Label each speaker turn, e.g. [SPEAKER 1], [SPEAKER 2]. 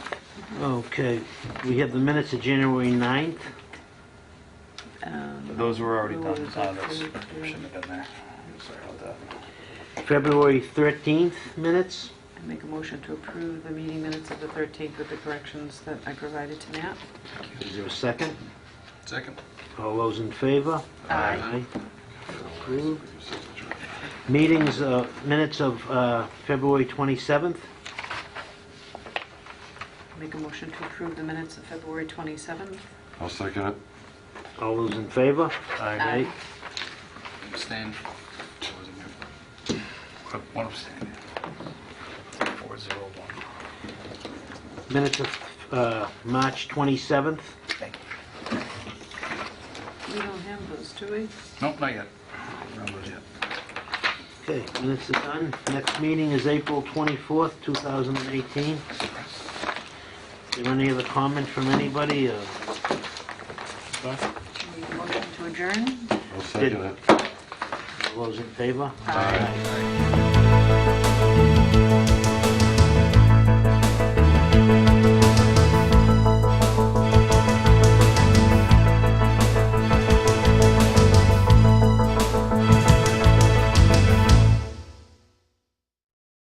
[SPEAKER 1] Okay, we have the minutes of January 9th.
[SPEAKER 2] Um,
[SPEAKER 3] Those were already done, uh, those shouldn't have been there. Sorry about that.
[SPEAKER 1] February 13th minutes.
[SPEAKER 2] I Make a motion to approve the meeting minutes of the 13th with the corrections that I provided to Matt.
[SPEAKER 1] Is there a second?
[SPEAKER 4] Second.
[SPEAKER 1] All those in favor?
[SPEAKER 2] Aye.
[SPEAKER 1] Approved. Meetings, uh, minutes of uh, February 27th.
[SPEAKER 2] Make a motion to approve the minutes of February 27th.
[SPEAKER 5] I'll second it.
[SPEAKER 1] All those in favor?
[SPEAKER 2] Aye.
[SPEAKER 4] Abstain. I wasn't here. One abstain. Four zero one.
[SPEAKER 1] Minutes of uh, March 27th.
[SPEAKER 4] Thank you.
[SPEAKER 2] We don't have those, do we?
[SPEAKER 4] Nope, not yet. Not those yet.
[SPEAKER 1] Okay, minutes are done. Next meeting is April 24th, 2018. Is there any other comment from anybody? uh,
[SPEAKER 2] Make a motion to adjourn.
[SPEAKER 5] I'll second it.
[SPEAKER 1] All those in favor?
[SPEAKER 2] Aye.
[SPEAKER 1] Aye.